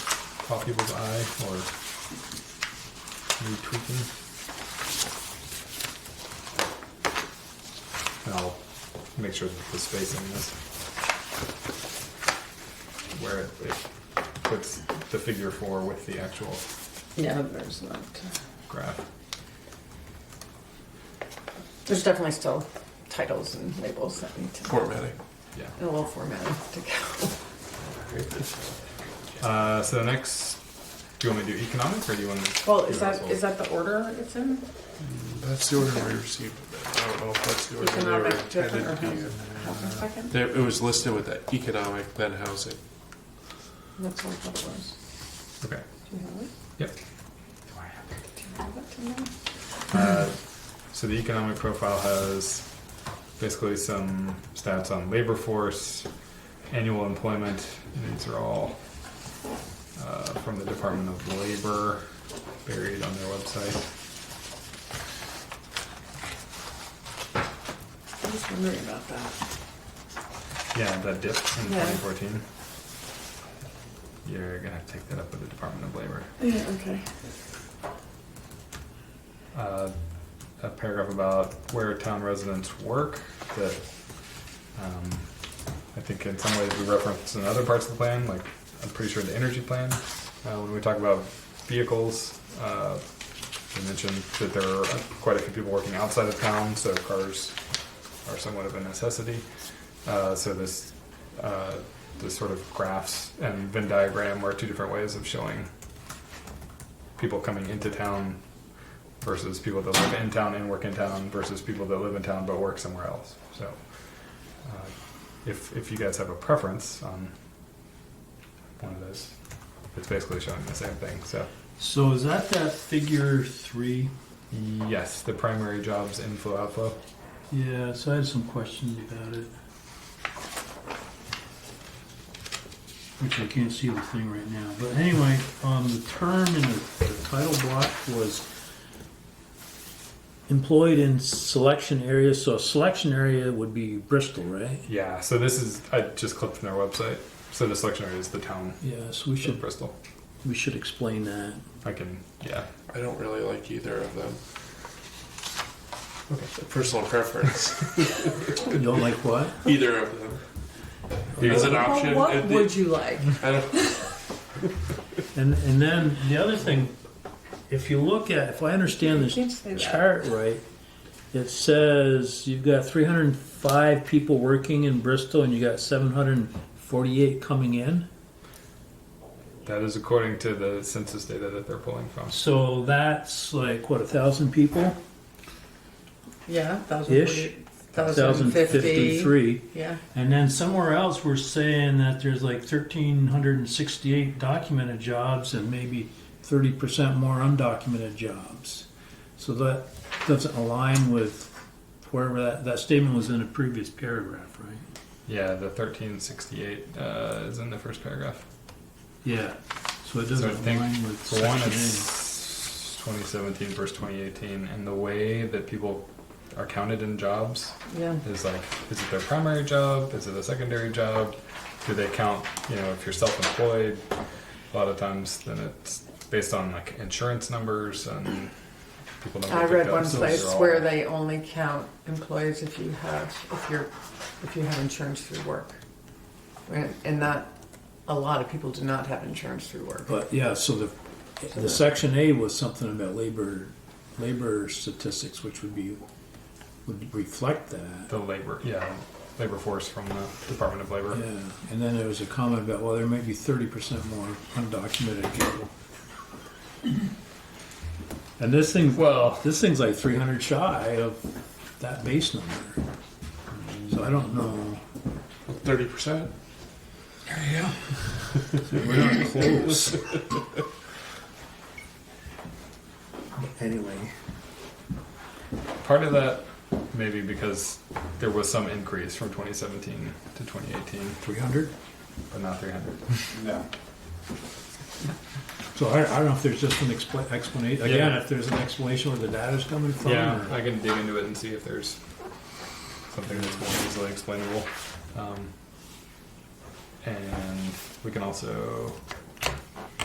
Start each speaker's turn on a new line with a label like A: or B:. A: caught people's eye or need tweaking? And I'll make sure that the spacing is where it, it puts the figure four with the actual
B: Yeah, there's not.
A: graph.
B: There's definitely still titles and labels that need to
C: Formatting.
A: Yeah.
B: and a little formatting to go.
A: Uh, so the next, do you want me to do economic or do you want to?
B: Well, is that is that the order it's in?
C: That's the order I received. it. I don't know if that's the order they were
B: Economic
C: intended
B: different or
C: to be.
B: housing,
C: in.
B: housing second?
C: There- It was listed with the economic, then housing.
B: That's what I thought it was.
A: Okay.
B: Do you have it?
A: Yep.
B: Do you have it in there?
A: Uh, so the economic profile has basically some stats on labor force, annual employment, and these are all uh, from the Department of Labor, buried on their website.
B: I was wondering about that.
A: Yeah, that dip in
B: Yeah.
A: 2014. You're gonna have to take that up with the Department of Labor.
B: Yeah, okay.
A: uh, a paragraph about where town residents work that um, I think in some ways we reference in other parts of the plan, like I'm pretty sure the energy plan. Uh, when we talk about vehicles, uh, we mentioned that there are quite a few people working outside of town, so cars are somewhat of a necessity. Uh, so this uh, this sort of graphs and Venn diagram are two different ways of showing people coming into town versus people that live in town and work in town versus people that live in town but work somewhere else. So, uh, if if you guys have a preference on one of those, it's basically showing the same thing. So,
D: So is that that figure three?
A: yes, the primary jobs inflow outflow.
D: Yeah, so I had some questions about it. Which I can't see the thing right now, but anyway, um, the term in the the title block was employed in selection area, so selection area would be Bristol, right?
A: Yeah. So this is I just clipped from their website. So the selection area is the town
D: Yeah, so we
A: in
D: should,
A: Bristol.
D: we should explain that.
A: I can yeah.
C: I don't really like either of them.
A: Okay.
C: Personal preference,
D: You don't like what?
C: either of them. As an option.
B: what
C: at the-
B: would you like?
C: I don't-
D: And, and then the other thing, if you look at, if I understand this
B: Can't say that.
D: chart right, it says you've got 305 people working in Bristol and you got 748 coming in.
A: That is according to the census data that they're pulling from.
D: So that's like, what, a thousand people?
B: Yeah,
D: Ish.
B: 1,040 1,050.
D: 1,053.
B: Yeah.
D: And then somewhere else, we're saying that there's like 1,368 documented jobs and maybe 30% more undocumented jobs. So that doesn't align with wherever that, that statement was in a previous paragraph, right?
A: Yeah, the 1368 uh, is in the first paragraph.
D: Yeah. So it
A: So I
D: doesn't
A: think
D: align with
A: For one,
D: section A.
A: it's 2017 versus 2018, and the way that people are counted in jobs
B: Yeah.
A: is like, is it their primary job? Is it a secondary job? Do they count, you know, if you're self employed? A lot of times, then it's based on like insurance numbers and people don't
B: I
A: get
B: read
A: picked
B: one
A: up, so
B: place
A: they're all-
B: where they only count employees if you have, if you're, if you have insurance through work. And- And not, a lot of people do not have insurance through work.
D: But yeah, so the, the section A was something about labor, labor statistics, which would be, would reflect that.
A: the labor, yeah, labor force from the Department of Labor.
D: Yeah, and then there was a comment about, well, there may be thirty percent more undocumented people. And this thing,
A: Well,
D: this thing's like three hundred shy of that base number. So I don't know.
C: 30%?
D: We're not close. Anyway.
A: Part of that maybe because there was some increase from 2017 to 2018,
D: Three hundred?
A: but not 300.
E: No.
D: So I, I don't know if there's just an expla- explanation, again, if there's an explanation where the data's coming from.
A: Yeah,
D: or-
A: I can dig into it and see if there's something that's more easily explainable. Um, and we can also